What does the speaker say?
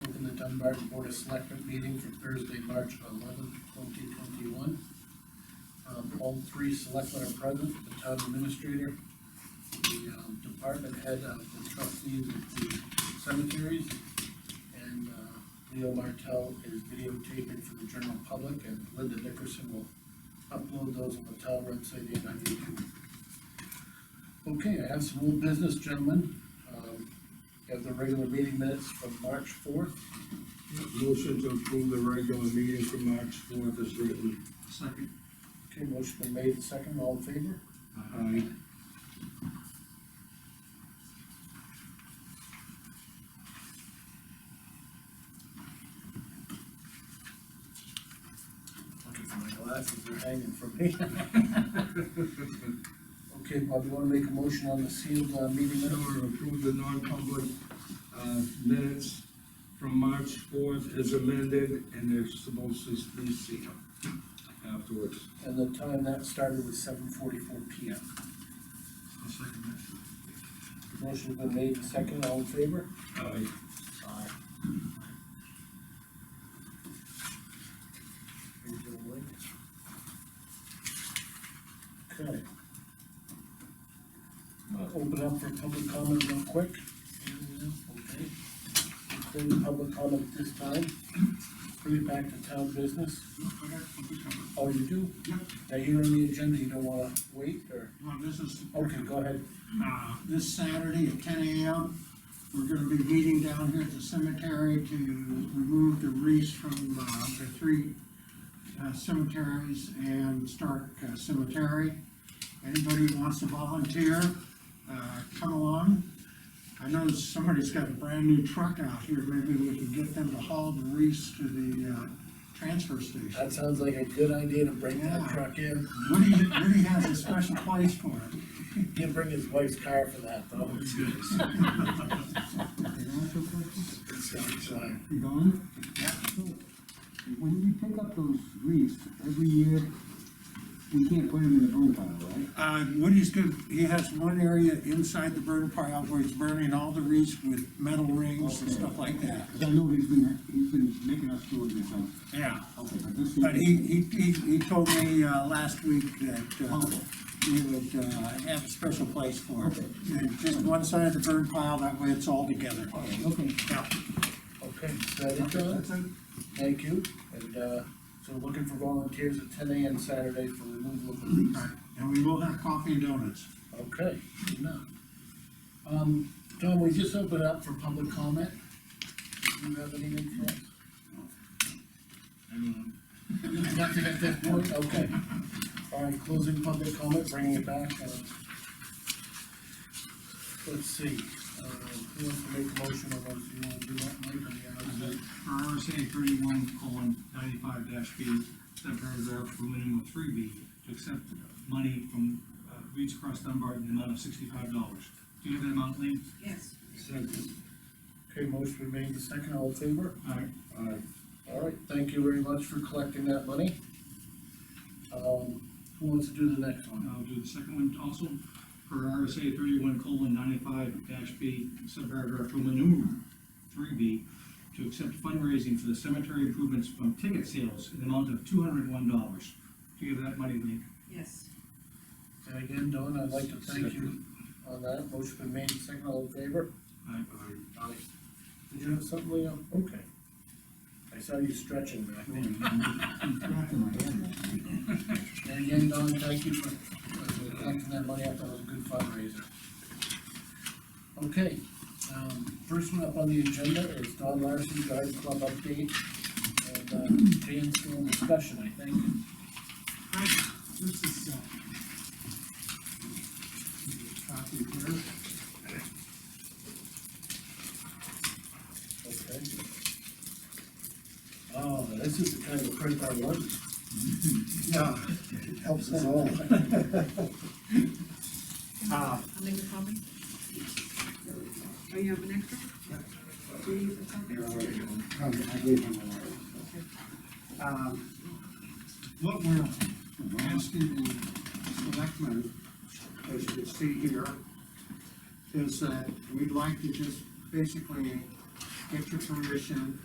Dunbar Board of Selectmen meeting for Thursday, March eleventh, twenty twenty-one. Um, all three selectmen are present, the town administrator, the, um, department head of the trustees of the cemeteries, and, uh, Leo Martell is videotaping for the general public, and Linda Nickerson will upload those on the town website and on YouTube. Okay, I have some old business, gentlemen, um, we have the regular meeting minutes from March fourth, Motion to approve the regular meeting for March fourth is written. Second. okay, motion been made, and second, all in favor? Aye. Looking for my glasses, they're hanging from me. Okay, Bob, you wanna make a motion on the sealed, uh, meeting Motion minutes? to approve the non-public, uh, minutes from March fourth is amended, and they're supposed to be sealed afterwards. And the time that started was seven forty-four P M. I'll second that. Motion's been made, and second, all in favor? Aye. Aye. Okay. Uh, Open up for public comment real quick. Okay. Include public comment at this time. Bring it back to town business. No, I got a good cover. Oh, you do? Yep, Now, you're on the agenda, you don't wanna wait, or? well, this is, Okay, go ahead. uh, this Saturday at ten AM, we're gonna be meeting down here at the cemetery to remove the wreaths from, uh, the three uh, cemeteries and Stark uh, Cemetery. Anybody who wants to volunteer, uh, come along. I know somebody's got a brand new truck out here, maybe we can get them to haul the wreaths to the, uh, transfer station. That sounds like a good idea to bring that truck in. Woody, Woody has a special place for it. Can't bring his wife's car for that, though. It's, uh, You gone? Yeah. When we pick up those leaves every year, we can't put them in the burn pile, right? Uh, Woody's good, he has one area inside the burn pile where he's burning all the wreaths with metal rings and stuff like that. Cause I know he's been, he's been making us do it himself. Yeah. Okay, but this year. But he, he, he, he told me, uh, last week that, uh, we would, uh, have a special place for it. Okay. And Just one side of the burn pile, that way it's all together. Okay. Yeah. Okay, is that it, John? That's it. Thank you, and, uh, so looking for volunteers at ten AM Saturday for removal of the leaves. All right. And we will have coffee and donuts. Okay, good enough. Um, John, we just opened up for public comment. Do you have anything for us? Nothing at this point, okay. All right, closing public comment, bringing it back, uh, let's see, uh, who wants to make a motion of those, you wanna do that, Mike, on the hours? For RSA thirty-one colon ninety-five dash B, subparagraph preliminary three B, to accept money from uh, Reeds Cross Dunbar in the amount of sixty-five dollars. Do you have that amount, Lee? Yes, Second. Okay, motion been made, the second, all in favor? Aye. Aye. All right, thank you very much for collecting that money. Um, who wants to do the next one? I'll do the second one also. For RSA thirty-one colon ninety-five dash B, subparagraph preliminary three B, to accept fundraising for the cemetery improvements from ticket sales in the amount of two hundred and one dollars. Do you have that money, Lee? yes, And again, Don, I'd like to thank you on that, motion been made, second, all in favor? Aye. Aye. Did you have something, Leo? Okay. I saw you stretching back there. He's cracking my head right now. And again, Don, thank you for for collecting that money, I thought it was a good fundraiser. Okay, um, first one up on the agenda is Don Larson, Garden Club update, and, uh, Dan's still in discussion, I think. Right, this is, uh, copy here. Okay. Oh, this is the kind of print I wanted. Yeah, it helps us all. Uh, I'll make a copy. Oh, you have an extra? Do you need a copy? Okay, Oh, I gave him a letter. um, what we're asking the selectmen, as you can see here, is that we'd like to just basically get your permission